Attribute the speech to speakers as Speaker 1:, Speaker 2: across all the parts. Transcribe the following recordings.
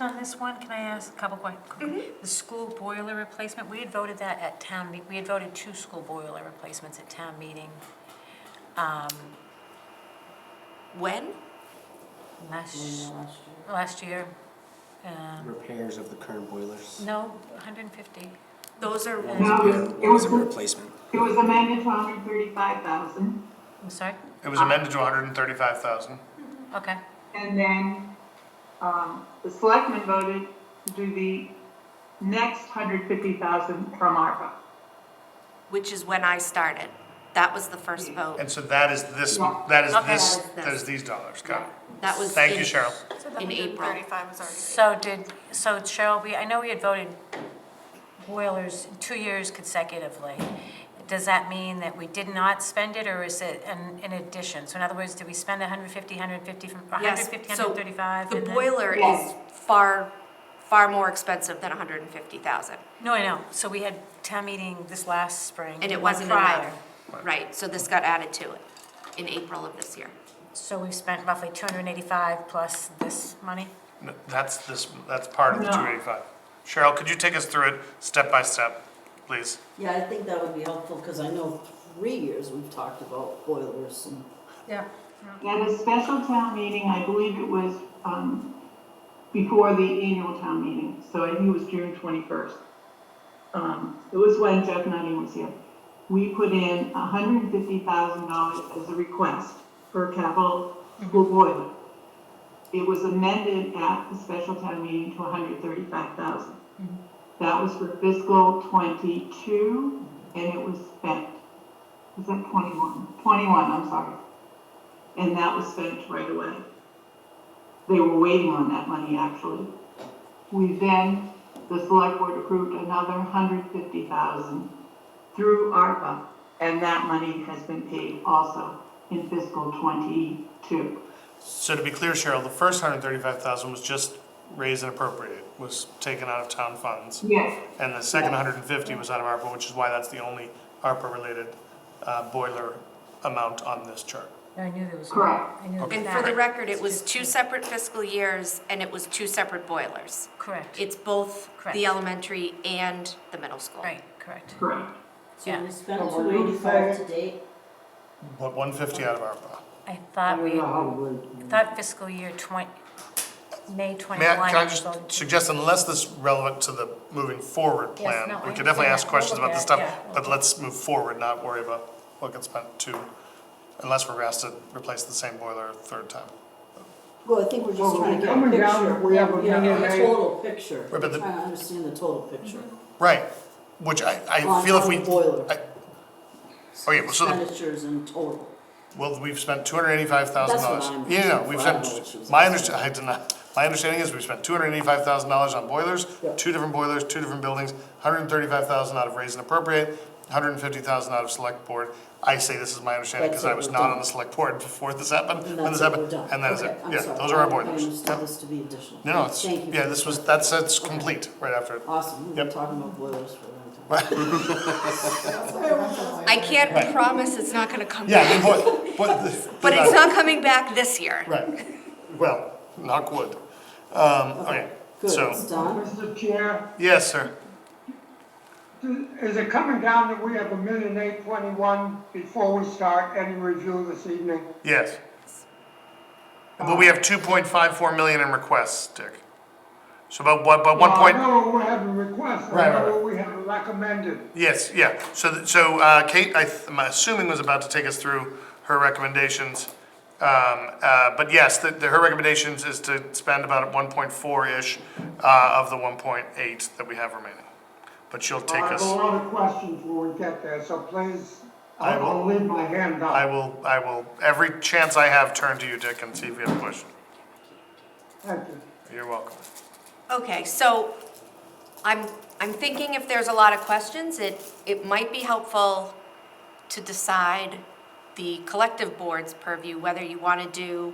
Speaker 1: on this one, can I ask a couple
Speaker 2: Mm-hmm.
Speaker 1: questions? The school boiler replacement, we had voted that at town, me- we had voted two school boiler replacements at town meeting um,
Speaker 2: When?
Speaker 1: last, uh, last year. Um,
Speaker 3: Repairs of the current boilers.
Speaker 1: No, 150.
Speaker 2: Those
Speaker 1: Uh,
Speaker 2: are,
Speaker 4: No, it
Speaker 3: It was a
Speaker 4: was,
Speaker 3: replacement.
Speaker 4: it was amended to hundred and thirty-five thousand,
Speaker 1: I'm sorry,
Speaker 5: It was amended to hundred and thirty-five thousand.
Speaker 1: okay.
Speaker 4: and then, um, the selectmen voted to do the next hundred fifty thousand from ARPA.
Speaker 2: which is when I started. That was the first vote.
Speaker 5: Mm. And so that is this,
Speaker 4: Yeah.
Speaker 5: that is
Speaker 2: Okay.
Speaker 5: this,
Speaker 2: That is this.
Speaker 5: that is these dollars, got it.
Speaker 2: That was.
Speaker 5: Thank
Speaker 2: in-
Speaker 5: you, Cheryl.
Speaker 2: In April.
Speaker 1: So did, so Cheryl, we, I know we had voted boilers two years consecutively. Does that mean that we did not spend it, or is it an, in addition? So in other words, did we spend 150, 150 from, 150,
Speaker 2: Yes, so
Speaker 1: 135?
Speaker 2: The
Speaker 1: and then-
Speaker 2: boiler is
Speaker 4: Yes.
Speaker 2: far, far more expensive than hundred and fifty thousand,
Speaker 1: No, I know, so we had town meeting this last spring.
Speaker 2: and
Speaker 1: the
Speaker 2: it
Speaker 1: one
Speaker 2: wasn't
Speaker 1: prior.
Speaker 2: enough. Right, so this got added to it in April of this year.
Speaker 1: So we spent roughly 285 plus this money?
Speaker 5: No, That's this, that's part of the
Speaker 4: No.
Speaker 5: two eighty-five. Cheryl, could you take us through it step by step, please?
Speaker 6: Yeah, I think that would be helpful, because I know three years we've talked about boilers and
Speaker 1: Yeah.
Speaker 4: At a special town meeting, I believe it was, um, before the annual town meeting, so I think it was June twenty-first. Um, it was when Jeff Nutting was here. We put in hundred and fifty thousand dollars as a request for a capital school boiler. It was amended at the special town meeting to hundred thirty-five thousand. That was for fiscal twenty-two, and it was spent. Was that twenty-one? Twenty-one, I'm sorry and that was spent right away. They were waiting on that money, actually. We then, the select board approved another hundred fifty thousand through ARPA, and that money has been paid also in fiscal twenty-two.
Speaker 5: So to be clear, Cheryl, the first hundred and thirty-five thousand was just raised and appropriated, was taken out of town funds.
Speaker 4: Yes,
Speaker 5: And the second hundred and fifty was out of ARPA, which is why that's the only ARPA-related uh, boiler amount on this chart.
Speaker 1: I knew there was.
Speaker 4: Correct.
Speaker 1: I knew there
Speaker 2: And
Speaker 1: was
Speaker 2: for the
Speaker 1: that.
Speaker 2: record, it was two separate fiscal years, and it was two separate boilers.
Speaker 1: Correct,
Speaker 2: It's both
Speaker 1: Correct.
Speaker 2: the elementary and the middle school.
Speaker 1: right, correct.
Speaker 4: correct.
Speaker 6: so
Speaker 1: Yeah.
Speaker 6: we spent
Speaker 7: Well,
Speaker 6: two
Speaker 7: we're doing fire.
Speaker 6: eighty-five to date.
Speaker 5: But one fifty out of ARPA.
Speaker 1: I
Speaker 7: I
Speaker 1: thought
Speaker 7: don't
Speaker 1: we,
Speaker 7: know how
Speaker 1: I
Speaker 7: we're,
Speaker 1: thought fiscal year 20, May 21.
Speaker 5: May I, can I
Speaker 1: was
Speaker 5: just
Speaker 1: voted to-
Speaker 5: suggest, unless this relevant to the moving forward plan,
Speaker 1: no, I
Speaker 5: we could
Speaker 1: understand
Speaker 5: definitely ask
Speaker 1: that.
Speaker 5: questions
Speaker 1: We'll
Speaker 5: about this
Speaker 1: look at
Speaker 5: stuff,
Speaker 1: it,
Speaker 5: but let's move forward, not worry about what gets spent to, unless we're asked to replace the same boiler a third time.
Speaker 6: Well, I think we're just
Speaker 7: Well,
Speaker 6: trying to get a
Speaker 7: coming
Speaker 6: picture.
Speaker 7: down, we have a
Speaker 6: Yeah,
Speaker 7: million
Speaker 6: a
Speaker 7: eight.
Speaker 6: Total picture,
Speaker 5: Right,
Speaker 6: trying
Speaker 5: but the-
Speaker 6: to understand the total picture.
Speaker 1: Mm-hmm.
Speaker 5: Right, which I, I
Speaker 6: On-
Speaker 5: feel if
Speaker 6: on
Speaker 5: we.
Speaker 6: the boiler.
Speaker 5: I- Okay, well, so the-
Speaker 6: Expenditures in total.
Speaker 5: Well, we've spent two hundred eighty-five thousand
Speaker 6: That's what
Speaker 5: dollars.
Speaker 6: I'm-
Speaker 5: Yeah, no, we've
Speaker 6: I don't know what she
Speaker 5: spent,
Speaker 6: was
Speaker 5: my
Speaker 6: gonna
Speaker 5: understa- I did not, my understanding is we've spent two hundred eighty-five thousand dollars on boilers,
Speaker 7: Yeah.
Speaker 5: two different boilers, two different buildings, hundred and thirty-five thousand out of raise and appropriate, hundred and fifty thousand out of select board. I say this is my understanding because
Speaker 6: That's what
Speaker 5: I was
Speaker 6: we're
Speaker 5: not on
Speaker 6: doing.
Speaker 5: the select board before this happened, when
Speaker 6: And that's
Speaker 5: this
Speaker 6: what we're
Speaker 5: happened,
Speaker 6: done.
Speaker 5: and that is
Speaker 6: Okay,
Speaker 5: it.
Speaker 6: I'm
Speaker 5: Yeah,
Speaker 6: sorry.
Speaker 5: those are our
Speaker 6: I- I
Speaker 5: boilers.
Speaker 6: understood this to be additional.
Speaker 5: No, no, it's,
Speaker 6: Thank you.
Speaker 5: yeah, this was, that's, that's complete right after. it.
Speaker 6: Awesome, we've been
Speaker 5: Yep.
Speaker 6: talking about boilers for a long time.
Speaker 2: I can't promise it's not gonna come
Speaker 5: Yeah,
Speaker 2: back,
Speaker 5: the boi- boi- the-
Speaker 2: but
Speaker 5: the-
Speaker 2: it's not coming back this year.
Speaker 5: Right, well, knock wood. Um, okay,
Speaker 6: Good, it's
Speaker 5: so,
Speaker 6: done.
Speaker 7: Mr. Chair,
Speaker 5: yes, sir.
Speaker 7: is it coming down that we have a million eight twenty-one before we start any review this evening?
Speaker 5: Yes. But we have two point five four million in requests, Dick. So about what, about one
Speaker 7: Well,
Speaker 5: point,
Speaker 7: I know what we have in request, I
Speaker 5: Right, right,
Speaker 7: know what we have recommended.
Speaker 5: yes, yeah, so, th- so, uh, Kate, I, th- I'm assuming was about to take us through her recommendations. Um, uh, but yes, the, the, her recommendations is to spend about one point four-ish, uh, of the one point eight that we have remaining. But she'll take
Speaker 7: I have a
Speaker 5: us,
Speaker 7: lot of questions when we get there, so please,
Speaker 5: I
Speaker 7: I'll
Speaker 5: will-
Speaker 7: I'll leave my hand up.
Speaker 5: I will, I will, every chance I have, turn to you, Dick, and see if you have a question.
Speaker 7: Thank you.
Speaker 5: You're welcome.
Speaker 2: Okay, so I'm, I'm thinking if there's a lot of questions, it, it might be helpful to decide the collective board's purview, whether you want to do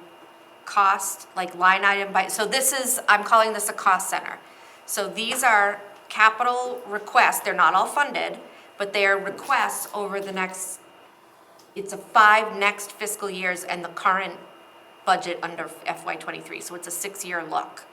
Speaker 2: cost, like line item by, so this is, I'm calling this a cost center. So these are capital requests, they're not all funded, but they are requests over the next, it's a five next fiscal years and the current budget under FY twenty-three, so it's a six-year look.